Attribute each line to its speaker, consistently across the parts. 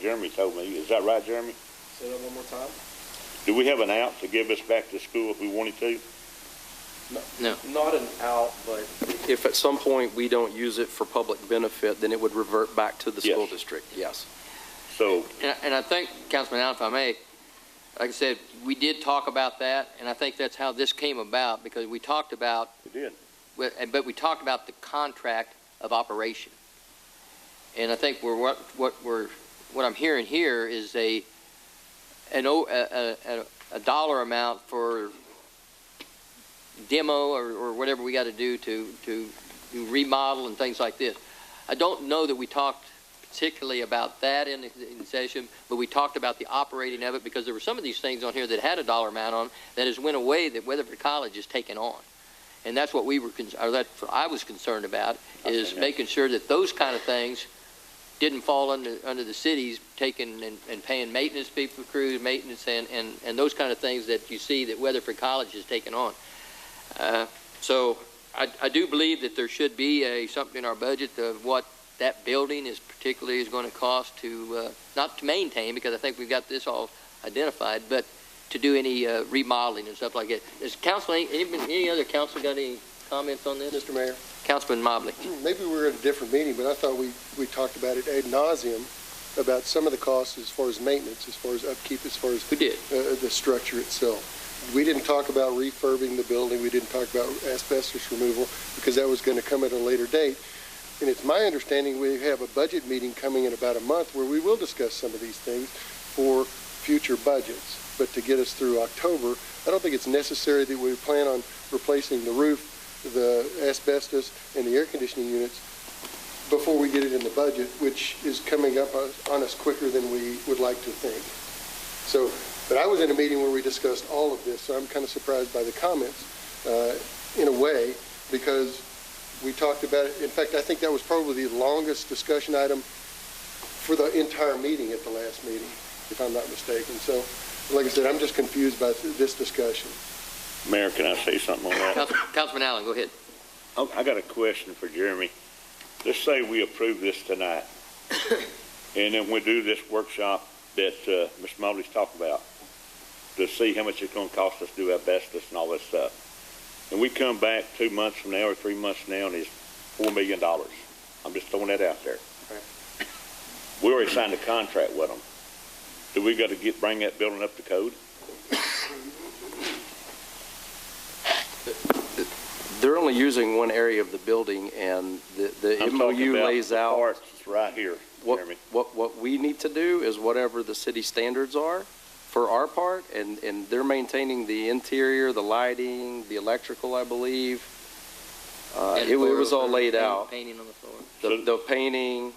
Speaker 1: Jeremy told me. Is that right, Jeremy?
Speaker 2: Say that one more time?
Speaker 1: Do we have an out to give us back to school if we wanted to?
Speaker 2: Not an out, but if at some point we don't use it for public benefit, then it would revert back to the
Speaker 1: Yes.
Speaker 2: school district, yes.
Speaker 1: So,
Speaker 3: And, and I think, Councilman Allen, if I may, like I said, we did talk about that, and I think that's how this came about, because we talked about,
Speaker 1: we did.
Speaker 3: but but we talked about the contract of operation. And I think we're, what, what we're, what I'm hearing here is a, an, o- a, a- a, a dollar amount for demo or, or whatever we gotta do to, to do remodel and things like this. I don't know that we talked particularly about that in, in session, but we talked about the operating of it because there were some of these things on here that had a dollar amount on 'em that has went away that Weatherford College has taken on. And that's what we were, con- or that's what I was concerned about, is
Speaker 1: Okay.
Speaker 3: making sure that those kind of things didn't fall under, under the cities taking and, and paying maintenance people, crews, maintenance and, and, and those kind of things that you see that Weatherford College has taken on. Uh, So I, I do believe that there should be a, something in our budget of what that building is particularly is going to cost to, uh, not to maintain, because I think we've got this all identified, but to do any uh, remodeling and stuff like that. Is council, any, any- any other council got any comments on this?
Speaker 4: Mr. Mayor,
Speaker 3: Councilman Mobley?
Speaker 4: Hmm, maybe we were at a different meeting, but I thought we, we talked about it ad nauseum about some of the costs as far as maintenance, as far as upkeep, as far as
Speaker 3: We did.
Speaker 4: uh, the structure itself. We didn't talk about refurbing the building, we didn't talk about asbestos removal, because that was going to come at a later date. And it's my understanding we have a budget meeting coming in about a month where we will discuss some of these things for future budgets. But to get us through October, I don't think it's necessary that we plan on replacing the roof, the asbestos, and the air conditioning units before we get it in the budget, which is coming up on- on us quicker than we would like to think. So, but I was in a meeting where we discussed all of this, so I'm kind of surprised by the comments, uh, in a way, because we talked about it, in fact, I think that was probably the longest discussion item for the entire meeting at the last meeting, if I'm not mistaken. So, like I said, I'm just confused by th- this discussion.
Speaker 1: Mayor, can I say something on that?
Speaker 3: Council- Councilman Allen, go ahead.
Speaker 1: Oh, I I got a question for Jeremy. Let's say we approve this tonight, and then we do this workshop that uh, Ms. Mobley's talking about to see how much it's going to cost us to do asbestos and all that stuff. And we come back two months from now or three months from now, and it's $4 million. I'm just throwing that out there. We already signed a contract with them. Do we got to get, bring that building up to code?
Speaker 2: They're only using one area of the building, and the, the
Speaker 1: I'm talking
Speaker 2: MOU
Speaker 1: about
Speaker 2: lays
Speaker 1: the
Speaker 2: out
Speaker 1: parts Right here,
Speaker 2: what,
Speaker 1: Jeremy.
Speaker 2: what, what we need to do is whatever the city standards are for our part, and, and they're maintaining the interior, the lighting, the electrical, I believe. Uh, it wa- it was all laid out.
Speaker 3: Painting on the floor.
Speaker 2: the, the painting,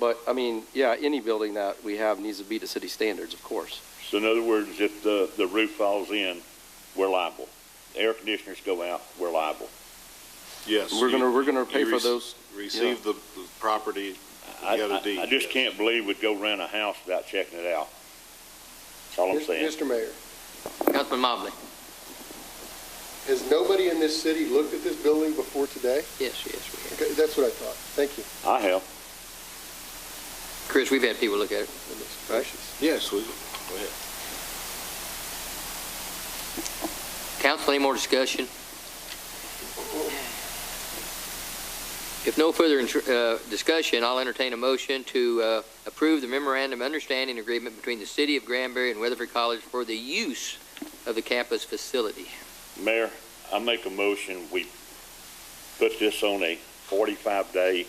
Speaker 2: but, I mean, yeah, any building that we have needs to be to city standards, of course.
Speaker 1: So in other words, if the, the roof falls in, we're liable. Air conditioners go out, we're liable.
Speaker 5: Yes.
Speaker 2: We're gonna, we're gonna pay
Speaker 5: you
Speaker 2: for
Speaker 5: rec-
Speaker 2: those.
Speaker 5: Receive the the property,
Speaker 1: I,
Speaker 5: You got a
Speaker 1: I- I
Speaker 5: deed,
Speaker 1: just
Speaker 5: yes.
Speaker 1: can't believe we'd go rent a house without checking it out. That's all I'm saying.
Speaker 4: Mr. Mayor,
Speaker 3: Councilman Mobley?
Speaker 4: has nobody in this city looked at this building before today?
Speaker 3: Yes, yes, we have.
Speaker 4: Okay, that's what I thought. Thank you.
Speaker 1: I have.
Speaker 3: Chris, we've had people look at it.
Speaker 4: Goodness gracious.
Speaker 5: yes, we,
Speaker 3: Council, any more discussion? If no further intr- uh, discussion, I'll entertain a motion to uh, approve the memorandum of understanding agreement between the City of Granbury and Weatherford College for the use of the campus facility.
Speaker 1: Mayor, I make a motion, we put this on a forty-five day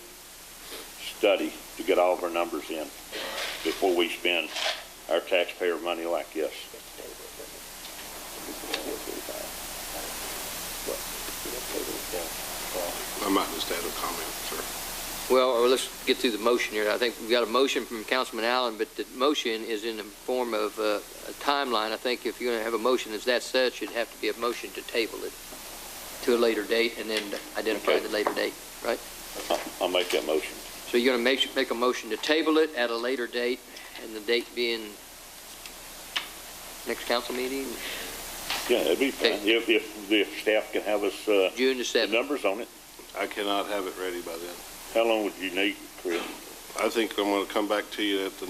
Speaker 1: study to get all of our numbers in before we spend our taxpayer money like this.
Speaker 5: I might just add a comment, sir.
Speaker 3: Well, uh, let's get through the motion here. I think we've got a motion from Councilman Allen, but the motion is in the form of uh, a timeline. I think if you're going to have a motion as that such, it'd have to be a motion to table it to a later date and then identify
Speaker 1: Okay.
Speaker 3: the later date.
Speaker 1: I- I'll make that motion.
Speaker 3: So you're going to make, make a motion to table it at a later date, and the date being next council meeting,
Speaker 1: Yeah, it'd be fine.
Speaker 3: Okay.
Speaker 1: If, if, if staff can have us, uh,
Speaker 3: June the
Speaker 1: the
Speaker 3: 7th.
Speaker 1: numbers on it.
Speaker 5: I cannot have it ready by then.
Speaker 1: How long would you need, Chris?
Speaker 5: I think I'm going to come back to you at the